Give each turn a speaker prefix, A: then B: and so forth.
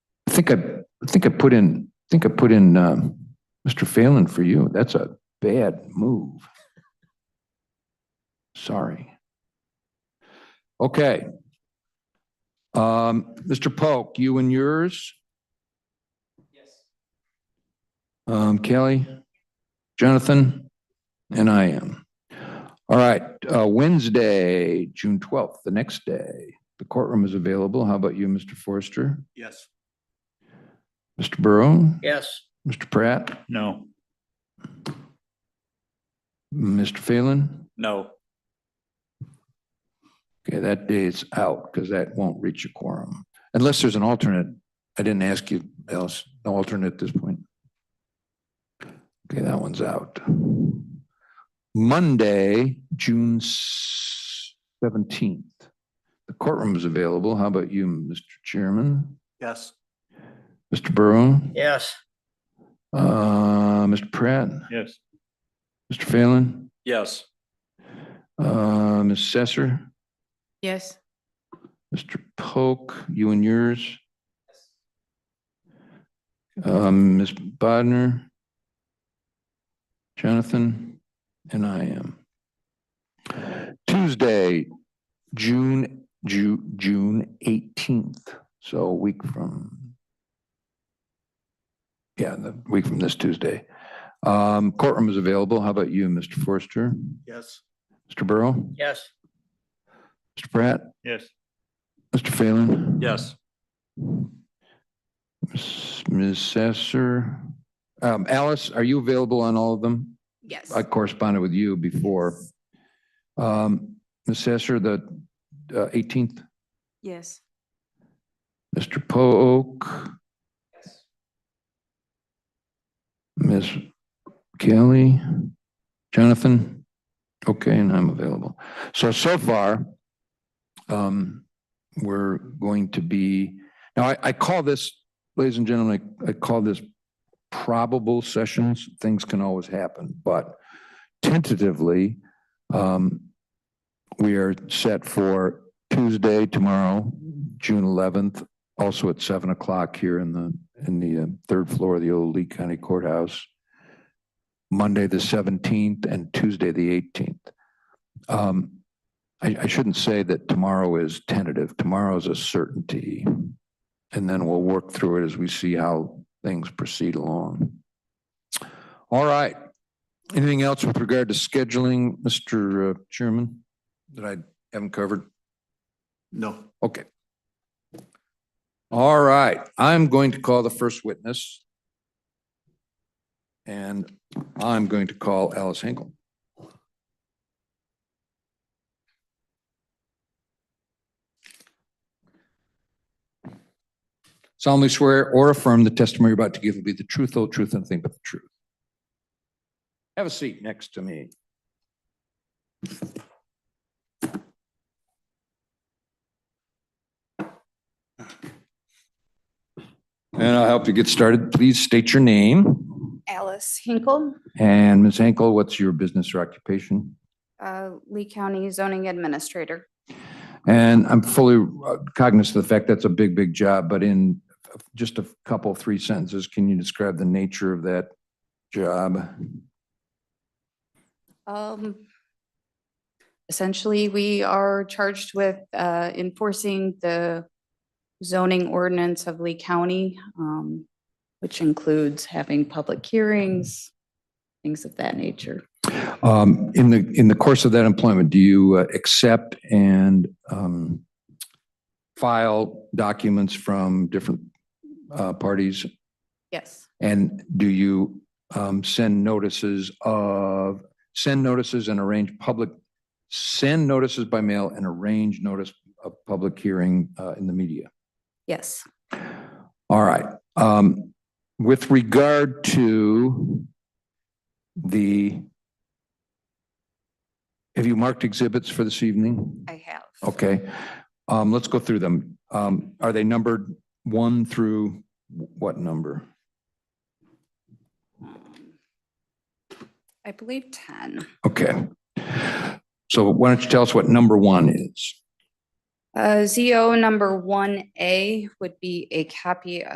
A: think I, I think I put in, I think I put in, um, Mr. Phelan for you. That's a bad move. Sorry. Okay. Um, Mr. Polk, you and yours? Yes. Um, Kelly, Jonathan, and I am. All right, uh, Wednesday, June twelfth, the next day. The courtroom is available. How about you, Mr. Forrester?
B: Yes.
A: Mr. Burrow?
B: Yes.
A: Mr. Pratt?
B: No.
A: Mr. Phelan?
B: No.
A: Okay, that day is out because that won't reach a quorum. Unless there's an alternate. I didn't ask you else, no alternate at this point. Okay, that one's out. Monday, June seventeenth. The courtroom is available. How about you, Mr. Chairman?
B: Yes.
A: Mr. Burrow?
B: Yes.
A: Uh, Mr. Pratt?
B: Yes.
A: Mr. Phelan?
B: Yes.
A: Uh, Ms. Sesser?
C: Yes.
A: Mr. Polk, you and yours? Um, Ms. Bodnar? Jonathan? And I am. Tuesday, June, Ju- June eighteenth, so a week from. Yeah, the week from this Tuesday. Um, courtroom is available. How about you, Mr. Forster?
B: Yes.
A: Mr. Burrow?
B: Yes.
A: Mr. Pratt?
B: Yes.
A: Mr. Phelan?
B: Yes.
A: Ms. Ms. Sasser, um, Alice, are you available on all of them?
C: Yes.
A: I corresponded with you before. Um, Ms. Sasser, the uh, eighteenth,
C: Yes.
A: Mr. Pook. Ms. Kelly, Jonathan, okay, and I'm available. So, so far, um, we're going to be, now I, I call this, ladies and gentlemen, I I call this probable sessions. Things can always happen, but tentatively, um, we are set for Tuesday, tomorrow, June eleventh, also at seven o'clock here in the, in the uh, third floor of the old Lee County Courthouse. Monday, the seventeenth, and Tuesday, the eighteenth. Um, I, I shouldn't say that tomorrow is tentative. Tomorrow is a certainty. And then we'll work through it as we see how things proceed along. All right. Anything else with regard to scheduling, Mr. uh, Chairman, that I haven't covered?
B: No.
A: Okay. All right, I'm going to call the first witness. And I'm going to call Alice Hinkle. solemnly swear or affirm the testimony you're about to give will be the truth, whole truth, and nothing but the truth. Have a seat next to me. And I'll help you get started. Please state your name.
D: Alice Hinkle,
A: And Ms. Henkel, what's your business or occupation?
D: uh, Lee County Zoning Administrator.
A: And I'm fully uh, cognizant of the fact that's a big, big job, but in just a couple, three sentences, can you describe the nature of that job?
D: Um, Essentially, we are charged with uh, enforcing the zoning ordinance of Lee County, um, which includes having public hearings, things of that nature.
A: Um, In the, in the course of that employment, do you uh, accept and um, file documents from different uh, parties?
D: Yes,
A: And do you um, send notices of, send notices and arrange public, send notices by mail and arrange notice of public hearing uh, in the media?
D: yes,
A: All right. Um, With regard to the, have you marked exhibits for this evening?
D: I have.
A: Okay. Um, Let's go through them. Um, Are they numbered one through what number?
D: Um, I believe 10.
A: Okay. So why don't you tell us what number one is?
D: Uh, ZO number 1A would be a copy